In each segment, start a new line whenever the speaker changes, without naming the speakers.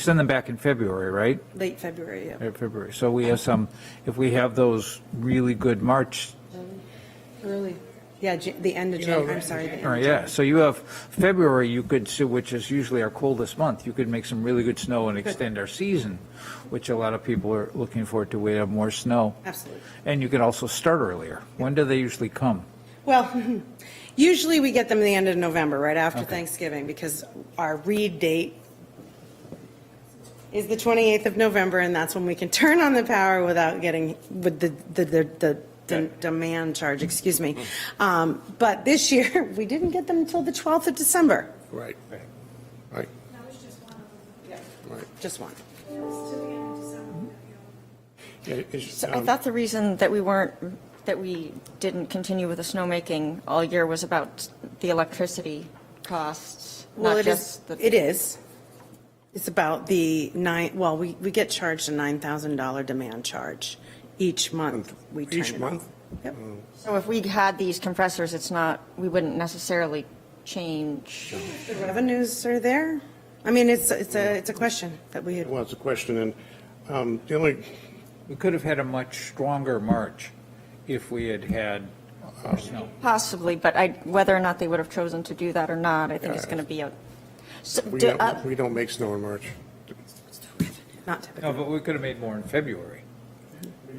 send them back in February, right?
late February, yeah.
Uh, February. So we have some, if we have those really good March,
Early. Yeah, Jan- the end of January, I'm sorry. the end
or
of
yeah, so you have February, you could, see, which is usually our coldest month, you could make some really good snow and extend our season, which a lot of people are looking forward to. We have more snow.
Absolutely.
And you could also start earlier. When do they usually come?
Well, usually we get them the end of November, right after Thanksgiving, because our read date is the 28th of November, and that's when we can turn on the power without getting, with the, the, the- the de- demand charge, excuse me. Um, But this year, we didn't get them until the 12th of December,
Right. Right.
That was just one of
just one.
them. It was to the end of December.
It- it's,
So I
um,
thought the reason that we weren't, that we didn't continue with the snowmaking all year was about the electricity costs,
Well,
not
it is,
just the.
it is. It's about the nine, well, we, we get charged a $9,000 demand charge each month. We turn
Each
it
month? Oh.
off. Yep.
So if we had these compressors, it's not, we wouldn't necessarily change.
The revenues are there. I mean, it's, it's a, it's a question that we had.
Well, it's a question, and um, the only,
We could have had a much stronger March if we had had more snow.
Possibly, but I, whether or not they would have chosen to do that or not, I think
Uh,
it's going to be a. so
we
do-
don't,
uh,
we don't make snow in March.
Not
No,
typical.
but we could have made more in February.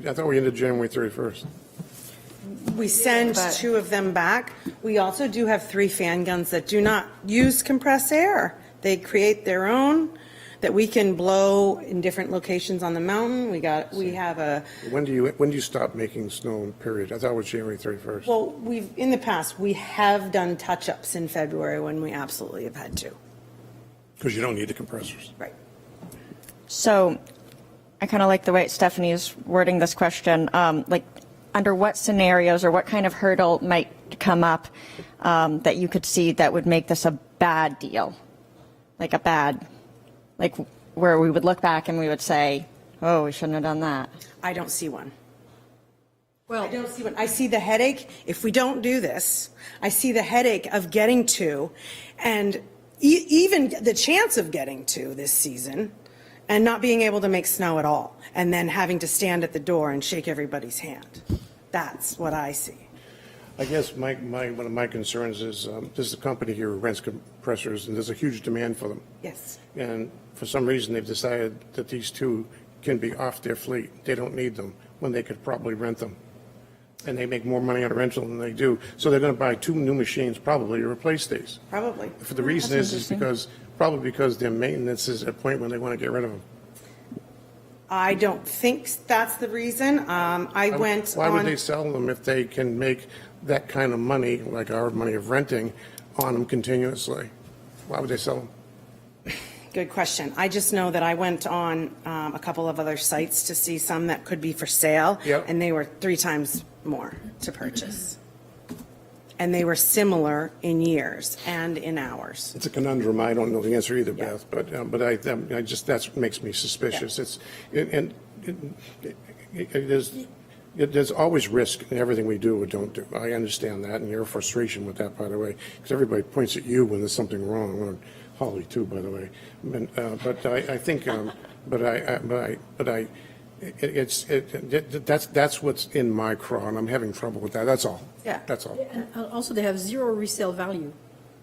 I thought we ended January 31st.
We send
But-
two of them back. We also do have three fan guns that do not use compressed air. They create their own that we can blow in different locations on the mountain. We got, we have a,
When do you, when do you stop making snow, period? I thought it was January 31st.
Well, we've, in the past, we have done touch-ups in February when we absolutely have had to.
Because you don't need the compressors.
Right.
So I kind of like the way Stephanie is wording this question, um, like, under what scenarios or what kind of hurdle might come up um, that you could see that would make this a bad deal? Like a bad, like where we would look back and we would say, oh, we shouldn't have done that.
I don't see one. Well. I don't see one. I see the headache, if we don't do this, I see the headache of getting to, and e- even the chance of getting to this season, and not being able to make snow at all, and then having to stand at the door and shake everybody's hand. That's what I see.
I guess my, my, one of my concerns is, um, there's a company here who rents compressors, and there's a huge demand for them.
Yes.
And for some reason, they've decided that these two can be off their fleet. They don't need them, when they could probably rent them. And they make more money on a rental than they do. So they're going to buy two new machines probably to replace these.
Probably.
For the reason is, is because, probably because their maintenance is at a point when they want to get rid of them.
I don't think that's the reason. Um, I went
Why would
on,
they sell them if they can make that kind of money, like our money of renting, on them continuously? Why would they sell them?
good question. I just know that I went on um, a couple of other sites to see some that could be for sale.
Yep.
And they were three times more to purchase. And they were similar in years and in hours.
It's a conundrum. I don't know the answer either,
Yeah.
Beth, but, um, but I, um, I just, that's what makes me suspicious. It's, and, and it- it- it- it is, it- there's always risk in everything we do or don't do. I understand that and your frustration with that, by the way, because everybody points at you when there's something wrong, or Holly too, by the way. And, uh, but I, I think, um, but I, I- but I, but I, it- it's, it, it- that's, that's what's in my craw and I'm having trouble with that. That's all.
Yeah.
That's all.
And uh, also, they have zero resale value.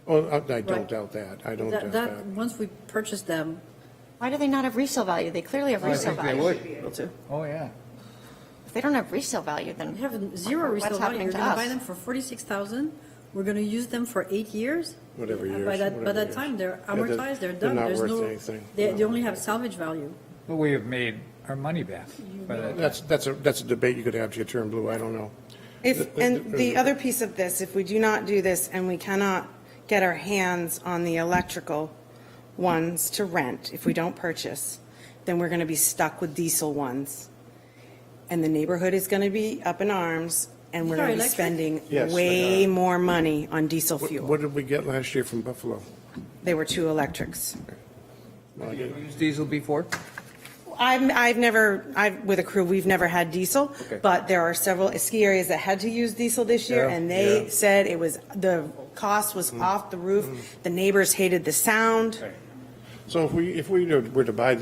Oh, I I don't
Right.
doubt that. I don't doubt
That, that,
that.
once we purchase them,
Why do they not have resale value? They clearly have
I
resale
think they
value.
would. Oh, yeah.
If they don't have resale value, then.
they have zero
what's
resale value.
happening
You're
to
gonna
us?
buy them for forty-six thousand, we're gonna use them for eight years.
Whatever
And
years,
By that,
whatever
by that
years.
time, they're
Yeah, they're-
amortized, they're
they're
done.
not
There's
worth
no-
anything.
They, they
No.
only have salvage value.
But we have made our money back. by that time.
That's, that's a, that's a debate you could have to turn blue, I don't know.
If, and the other piece of this, if we do not do this and we cannot get our hands on the electrical ones to rent, if we don't purchase, then we're going to be stuck with diesel ones. And the neighborhood is going to be up in arms and we're
These are
going to be
electric?
spending
Yes, they
way
are.
more money on diesel
What-
fuel.
What did we get last year from Buffalo?
They were two electrics.
Well,
Did we
you-
use diesel before?
I'm, I've never, I've, with a crew, we've never had diesel,
Okay.
but there are several ski areas that had to use diesel this year,
Yeah,
and they
yeah. Mm.
said it was, the cost was off the roof, the neighbors hated the sound.
So if we, if we were to buy